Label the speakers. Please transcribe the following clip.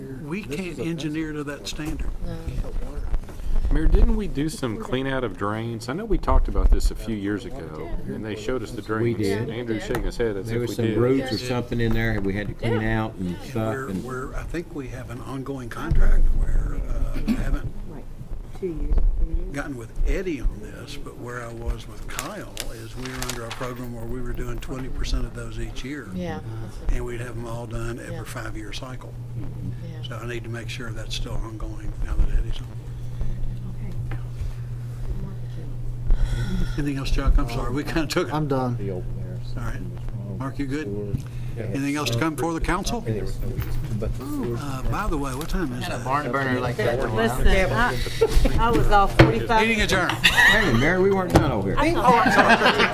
Speaker 1: we can't engineer to that standard.
Speaker 2: Mayor, didn't we do some clean out of drains? I know we talked about this a few years ago, and they showed us the drains.
Speaker 3: did.
Speaker 2: Andrew's shaking his head as
Speaker 3: There was
Speaker 2: if we
Speaker 3: some
Speaker 2: did.
Speaker 3: roots or something in there we had to clean
Speaker 4: Yeah.
Speaker 3: out and
Speaker 4: Uh,
Speaker 3: stuff.
Speaker 1: We're,
Speaker 3: And
Speaker 1: we're, I think we have an ongoing contract where uh, I haven't
Speaker 5: like two years, three years.
Speaker 1: gotten with Eddie on this, but where I was with Kyle is we were under a program where we were doing twenty percent of those each year.
Speaker 4: Yeah.
Speaker 1: And we'd have them all done
Speaker 4: Yeah.
Speaker 1: every five-year cycle.
Speaker 4: that's-
Speaker 1: So
Speaker 4: yeah.
Speaker 1: I need to make sure that's still ongoing now that Eddie's on.
Speaker 5: Okay.
Speaker 1: Anything else, Chuck? I'm sorry, we kind of took it.
Speaker 4: Um,
Speaker 1: All
Speaker 6: I'm done.
Speaker 1: right. Mark, you good? Anything else to come before the council?
Speaker 6: Oh.
Speaker 1: Uh, By the way, what time is it?
Speaker 6: Barn burner like
Speaker 5: Listen, I, I was off forty-five
Speaker 1: Meeting adjourned.
Speaker 3: Hey, Mary, we weren't done over here.